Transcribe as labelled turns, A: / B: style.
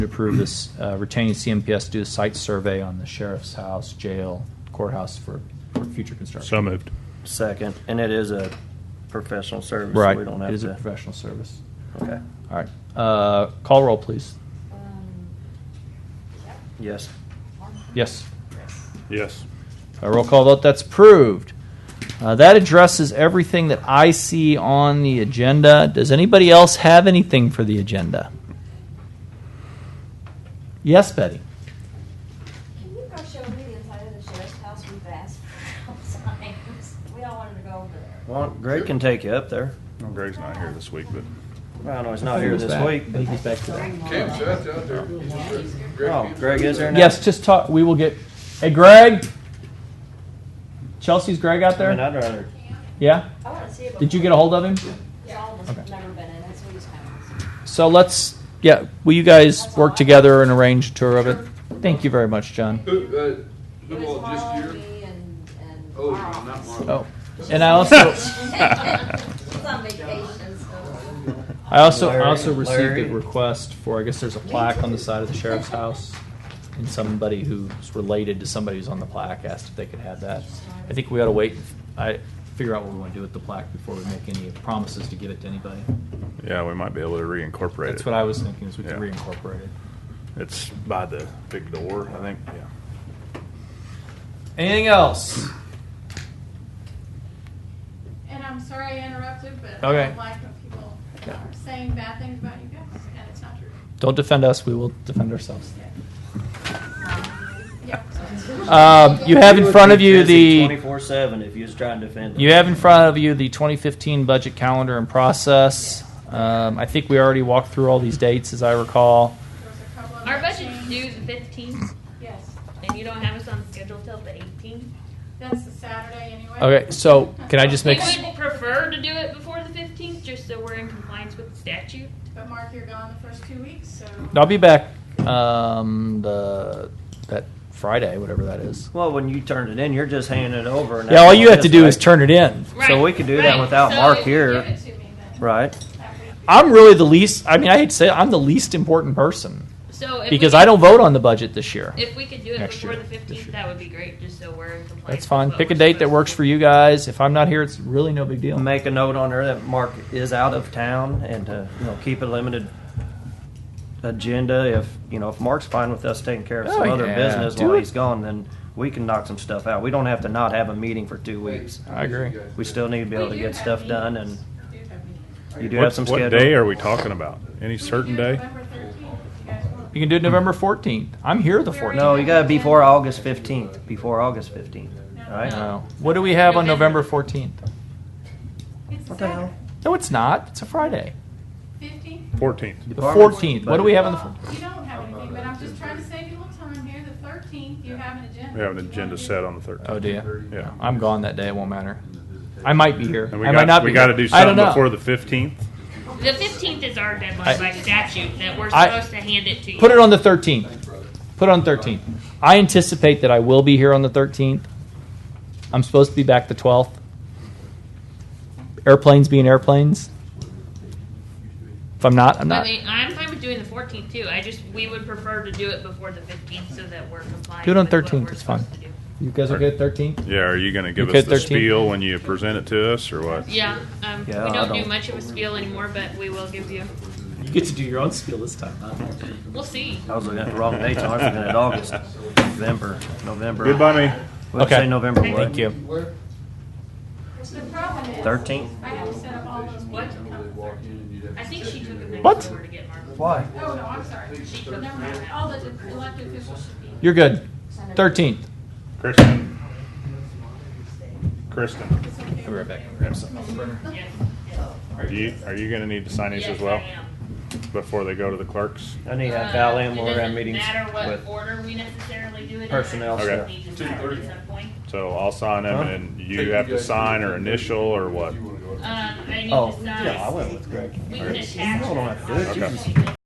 A: to approve this, uh, retaining CMPS to do a site survey on the sheriff's house, jail, courthouse for, for future construction.
B: So moved.
C: Second, and it is a professional service. so
A: Right,
C: We don't have
A: it is a
C: to-
A: professional service.
C: Okay,
A: All right, uh, call roll, please.
D: Um, Shep,
C: yes.
D: Mark,
A: Yes.
D: Chris.
B: Yes.
A: A roll call vote, that's approved. Uh, that addresses everything that I see on the agenda. Does anybody else have anything for the agenda? Yes, Betty?
D: Can you go show me the inside of the sheriff's house? We've asked for signs. We all wanted to go over there.
C: Well, Greg can take you up there.
B: Well, Greg's not here this week, but
C: I know he's not here
A: He's
C: this
A: back.
C: week.
A: I think he's back today.
E: Cam's out there. He's just-
C: Oh, Greg is there now?
A: Yes, just talk, we will get, hey, Greg? Chelsea's Greg out
C: I mean,
A: there?
C: I'd rather,
A: Yeah?
D: I want to see it.
A: Did you get a hold of him?
D: It's all of us have never been in. That's what he's kind of.
A: So let's, yeah, will you guys work together and arrange a tour of it? Thank you very much, John.
E: Who, uh,
D: It
E: who
D: was
E: all just
D: Marlo,
E: here?
D: me, and, and
E: Oh,
D: our
E: not
D: office.
E: Marlo.
A: Oh, and I also,
D: He's on vacation, so.
A: I also, I
C: Larry,
A: also received
C: Larry.
A: a request for, I guess there's a plaque on the side of the sheriff's house. And somebody who's related to somebody who's on the plaque asked if they could have that. I think we ought to wait, I, figure out what we want to do with the plaque before we make any promises to give it to anybody.
B: yeah, we might be able to reincorporate it.
A: That's what I was thinking, is we could
B: Yeah.
A: reincorporate it.
B: It's by the big door, I think. Yeah.
A: Anything else?
F: And I'm sorry I interrupted, but I
A: Okay.
F: don't like when people
A: Yeah.
F: are saying bad things about you guys, and it's not true.
A: Don't defend us, we will defend ourselves.
F: Yeah, so it's-
A: Um, you have in front of you the
C: Twenty-four seven if you was trying to defend. him.
A: you have in front of you the 2015 budget calendar and process. Um, I think we already walked through all these dates, as I recall.
F: there was a couple of
G: Our budget's
F: things.
G: due the 15th,
F: Yes,
G: and you don't have us on schedule till the 18th.
F: that's the Saturday anyway.
A: Okay, so can I just
G: We
A: make?
G: would prefer to do it before the 15th, just so we're in compliance with the statute.
F: But Mark, you're gone the first two weeks, so.
A: I'll be back um, the that Friday, whatever that is.
C: Well, when you turned it in, you're just handing it over. and
A: Yeah, all you have
C: that's
A: to do
C: right.
A: is turn it in.
C: So we could do that without
G: So
C: Mark
G: if-
F: Give
C: here,
F: it to me then.
C: right?
F: That week.
A: I'm really the least. I mean, I hate to say it, I'm the least important person
G: So if
A: because
G: we
A: I
G: could-
A: don't vote on the budget this year.
G: If we could do it
A: Next
G: before
A: year.
G: the 15th, that would be great, just so we're in compliance.
A: That's
G: with
A: fine.
G: what
A: Pick a
G: we're
A: date that
G: supposed
A: works
G: to
A: for
G: do.
A: you guys. If I'm not here, it's really no big deal.
C: Make a note on there that Mark is out of town and to, you know, keep a limited agenda. If, you know, if Mark's fine with us taking care of some
A: Oh,
C: other
A: yeah,
C: business
A: do
C: while
A: it.
C: he's gone, then we can knock some stuff out. We don't have to not have a meeting for two weeks.
A: I agree.
C: We still need to be able to
F: We do
C: get
F: have
C: stuff done and
F: meetings. We do have meetings.
C: you do
B: what,
C: have some
B: what
C: schedule.
B: day are we talking about? Any certain
F: We can do
B: day?
F: November 13th if you guys want.
A: You can do it November 14th. I'm here the 14th.
C: No, you gotta be before August fifteenth, before August fifteenth, alright?
A: No. What do we have on November 14th?
F: It's a
C: What the hell?
F: Saturday.
A: No, it's not. It's a Friday.
F: 15th?
B: 14th.
A: The 14th. What do we have on the
F: Well, You don't have anything, but I'm just trying to save you a little time here. The 13th, you have an agenda.
B: We have an
F: If you
B: agenda
F: wanna do
B: set
F: it.
B: on the 13th.
A: Oh, dear.
B: Yeah.
A: I'm gone that day. It won't matter. I might be here.
B: And we
A: I
B: got,
A: might not
B: we
A: be.
B: got to do
A: I don't
B: something
A: know.
B: before the 15th.
G: The 15th is our
A: I-
G: deadline by statute that we're
A: I-
G: supposed to hand it to you.
A: Put it on the 13th. Put it on 13th. I anticipate that I will be here on the 13th. I'm supposed to be back the 12th. Airplanes being airplanes. If I'm not, I'm
G: I
A: not.
G: mean, I'm fine with doing the 14th too. I just, we would prefer to do it before the 15th so that we're compliant.
A: Do it on
G: with what
A: 13th,
G: we're
A: it's fine.
G: supposed to do.
A: You guys okay with 13th?
B: Yeah, are you going to give
A: Okay,
B: us the
A: 13th.
B: spiel when you present it to us or what?
G: Yeah, um,
C: Yeah,
G: we
C: I
G: don't,
C: don't-
G: do much of a spiel anymore, but we will give you.
A: You get to do your own spiel this time, huh?
G: We'll see.
C: I was looking at the wrong dates, I was looking at August, November, November.
B: Goodbye, me.
C: What'd you
A: Okay.
C: say, November what?
A: Thank you.
E: Where?
F: The problem is.
C: Thirteenth?
F: I have to set up all those
G: What?
F: meetings. Oh,
G: I think she took a next
A: What?
G: door to get Marvel.
C: Why?
F: no, I'm sorry. Never mind.
C: Oh.
F: All the elected officials should be.
A: You're good. 13th.
B: Kristen. Kristen,
F: It's okay.
A: I'll be right back. I'm gonna grab something off the burner.
G: Yes.
B: are you, are you going to need to sign these
G: Yes,
B: as well
G: I am.
B: before they go to the clerks?
C: I need to have
G: Uh,
C: Val in, we're
G: it
C: gonna have
G: doesn't
C: meetings
G: matter what
C: with,
G: order we necessarily do it in.
C: personnel
G: I just
B: stuff.
G: need to sign at some point.
B: So I'll sign them
C: Huh?
B: and you have to sign or initial or what?
G: Um, I need
C: oh,
G: to sign.
C: yeah, I went with Greg.
G: We can attach.
C: Hold on,
G: that
C: dude, you
B: Okay.
G: document.